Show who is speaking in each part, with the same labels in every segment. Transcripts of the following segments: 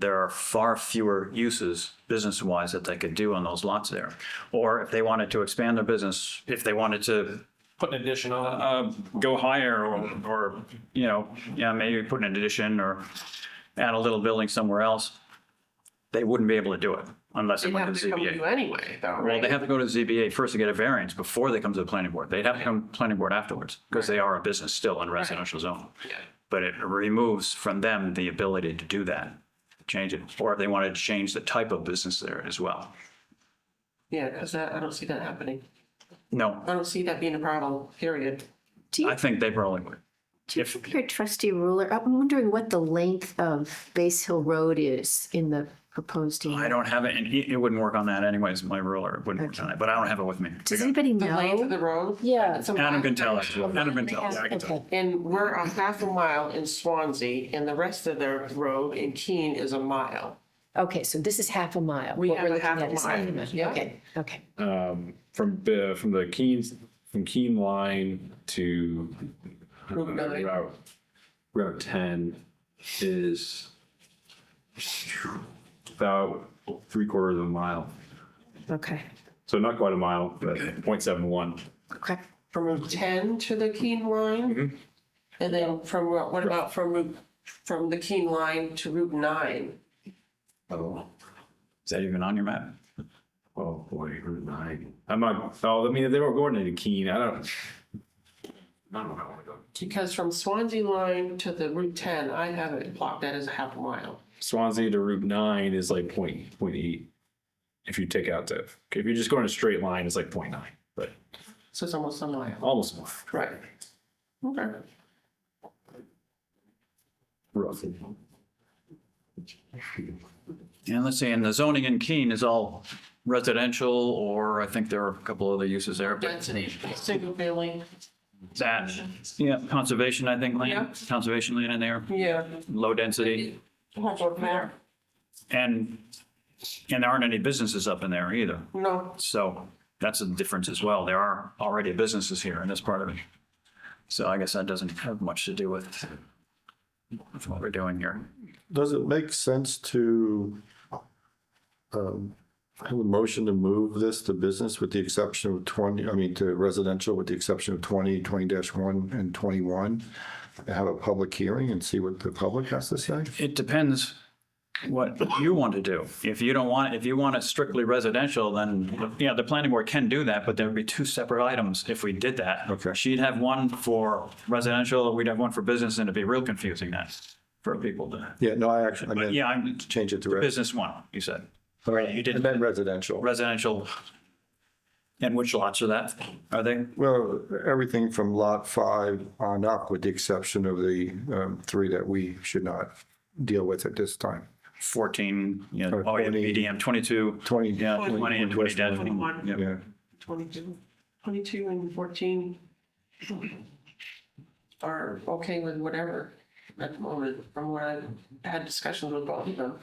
Speaker 1: there are far fewer uses business-wise that they could do on those lots there. Or if they wanted to expand their business, if they wanted to
Speaker 2: Put an addition on.
Speaker 1: uh, go higher or, or, you know, yeah, maybe put an addition or add a little building somewhere else, they wouldn't be able to do it unless it
Speaker 2: They'd
Speaker 1: went
Speaker 2: have
Speaker 1: to
Speaker 2: to come to
Speaker 1: ZBA.
Speaker 2: you anyway, though,
Speaker 1: Well,
Speaker 2: right?
Speaker 1: they have to go to ZBA first to get a variance before they come to the planning board. They'd have to come to the planning board afterwards because they are a business still in residential zone.
Speaker 2: Yeah.
Speaker 1: But it removes from them the ability to do that, change it, or if they wanted to change the type of business there as well.
Speaker 2: Yeah, because I don't see that happening.
Speaker 1: No,
Speaker 2: I don't see that being a problem, period.
Speaker 3: Do you,
Speaker 1: I think they probably would.
Speaker 3: do you think your trusty ruler, I'm wondering what the length of Base Hill Road is in the proposed.
Speaker 1: I
Speaker 3: area.
Speaker 1: don't have it, and it it wouldn't work on that anyways, my ruler, it wouldn't work on it, but I don't have it with me.
Speaker 3: Does anybody
Speaker 2: The length of
Speaker 3: know?
Speaker 2: the road.
Speaker 3: Yeah.
Speaker 2: It's a
Speaker 1: Adam
Speaker 2: mile.
Speaker 1: can tell us, Adam can tell us.
Speaker 3: Okay.
Speaker 2: And we're a half a mile in Swansea and the rest of the road in Keene is a mile.
Speaker 3: Okay, so this is half a mile.
Speaker 2: We
Speaker 3: What
Speaker 2: have
Speaker 3: we're
Speaker 2: a
Speaker 3: looking
Speaker 2: half a
Speaker 3: at is
Speaker 2: mile, yeah.
Speaker 3: Okay, okay.
Speaker 4: um, from uh, from the Keens from Keen Line to uh,
Speaker 2: Route nine.
Speaker 4: Route Route Ten is about three quarters of a mile.
Speaker 3: Okay,
Speaker 4: So not quite a mile, but 0.71.
Speaker 3: okay.
Speaker 2: From Route ten to the Keene line? And then from, Ro- what about from Route, from the Keene line to Route nine?
Speaker 4: Oh,
Speaker 1: Is that even on your map?
Speaker 4: oh boy, Route Nine. I'm not. Oh, I mean, they were going into Keene. I don't. I don't know. I want to go.
Speaker 2: Because from Swansea line to the Route ten, I have it blocked that as a half a mile.
Speaker 4: Swansea to Route Nine is like point point eight. If you take out the, if you're just going a straight line, it's like point nine, but
Speaker 2: So it's almost a mile.
Speaker 4: almost a mile.
Speaker 2: Right. Okay.
Speaker 4: Roughly.
Speaker 1: And let's see, and the zoning in Keene is all residential, or I think there are a couple other uses there, but
Speaker 2: Density, single family,
Speaker 1: that, yeah, conservation, I think,
Speaker 2: Yeah.
Speaker 1: land, conservation land in there,
Speaker 2: yeah.
Speaker 1: low density,
Speaker 2: Hold on, Mayor.
Speaker 1: and, and there aren't any businesses up in there either.
Speaker 2: No,
Speaker 1: So that's a difference as well. There are already businesses here, and that's part of it. So I guess that doesn't have much to do with with what we're doing here.
Speaker 5: Does it make sense to um, have a motion to move this to business with the exception of 20, I mean, to residential with the exception of 20, 20-1 and 21? Have a public hearing and see what the public has to say?
Speaker 1: It depends what you want to do. If you don't want, if you want it strictly residential, then, yeah, the planning board can do that, but there would be two separate items if we did that.
Speaker 5: Okay.
Speaker 1: She'd have one for residential, we'd have one for business, and it'd be real confusing then for people to,
Speaker 5: Yeah, no, I actually, I
Speaker 1: but
Speaker 5: meant,
Speaker 1: yeah, I'm,
Speaker 5: change it to res-
Speaker 1: business one, you said. You
Speaker 5: I
Speaker 1: did
Speaker 5: meant residential.
Speaker 1: residential. And which lots are that? Are they?
Speaker 5: Well, everything from lot five on up with the exception of the um, three that we should not deal with at this time.
Speaker 1: 14, you know,
Speaker 5: Or
Speaker 1: oh, yeah,
Speaker 5: 20.
Speaker 1: BDM, 22,
Speaker 5: 20.
Speaker 1: yeah, 20 and 20 dash.
Speaker 2: Twenty-one.
Speaker 1: yeah.
Speaker 5: Yeah.
Speaker 2: 22, 22 and 14 are okay with whatever at the moment, from what I've had discussions with both of them.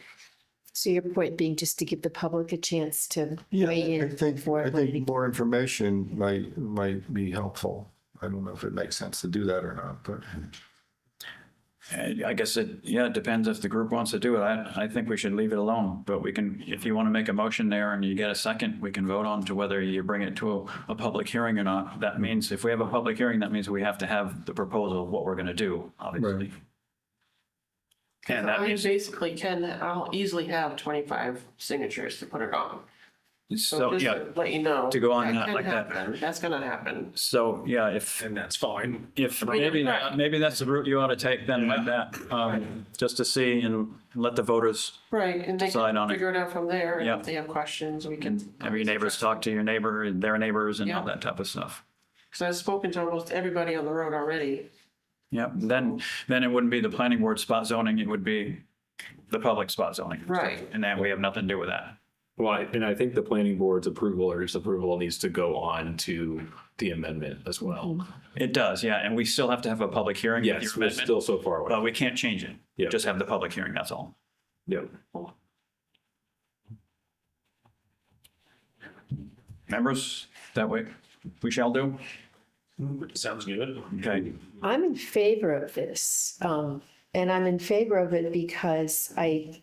Speaker 3: So your point being just to give the public a chance to
Speaker 5: Yeah,
Speaker 3: weigh
Speaker 5: I- I
Speaker 3: in.
Speaker 5: think,
Speaker 3: before
Speaker 5: I
Speaker 3: voting.
Speaker 5: think more information might, might be helpful. I don't know if it makes sense to do that or not, but
Speaker 1: And I guess it, yeah, it depends if the group wants to do it. I, I think we should leave it alone, but we can, if you want to make a motion there and you get a second, we can vote on to whether you bring it to a, a public hearing or not. That means if we have a public hearing, that means we have to have the proposal of what we're going to do, obviously. And that
Speaker 2: I
Speaker 1: means,
Speaker 2: basically can, I'll easily have 25 signatures to put it on.
Speaker 1: so,
Speaker 2: just to
Speaker 1: yeah,
Speaker 2: Let you know.
Speaker 1: to go on that
Speaker 2: can
Speaker 1: like that.
Speaker 2: happen. That's gonna happen.
Speaker 1: so, yeah, if,
Speaker 4: And that's fine.
Speaker 1: If
Speaker 2: mean,
Speaker 1: maybe,
Speaker 2: right.
Speaker 1: maybe that's the route you ought to take then like that, um, just to see and let the voters,
Speaker 2: Right, and they
Speaker 1: Decide
Speaker 2: can
Speaker 1: on it.
Speaker 2: figure it out from there, and
Speaker 1: Yeah.
Speaker 2: if they have questions, we can.
Speaker 1: have your neighbors talk to your neighbor and their neighbors and all
Speaker 2: Yeah.
Speaker 1: that type of stuff.
Speaker 2: Because I've spoken to almost everybody on the road already.
Speaker 1: Yeah, then, then it wouldn't be the planning board spot zoning, it would be the public spot zoning.
Speaker 2: Right.
Speaker 1: And that we have nothing to do with that.
Speaker 4: Well, I- and I think the planning board's approval or disapproval needs to go on to the amendment as well.
Speaker 1: It does, yeah, and we still have to have a public hearing with your
Speaker 4: Yes, we're
Speaker 1: amendment,
Speaker 4: still so far away.
Speaker 1: but we can't change it.
Speaker 4: Yeah.
Speaker 1: Just have the public hearing, that's all.
Speaker 4: Yep.
Speaker 1: Members, that way, we shall do?
Speaker 4: Sounds good.
Speaker 1: Okay.
Speaker 3: I'm in favor of this. Um, and I'm in favor of it because I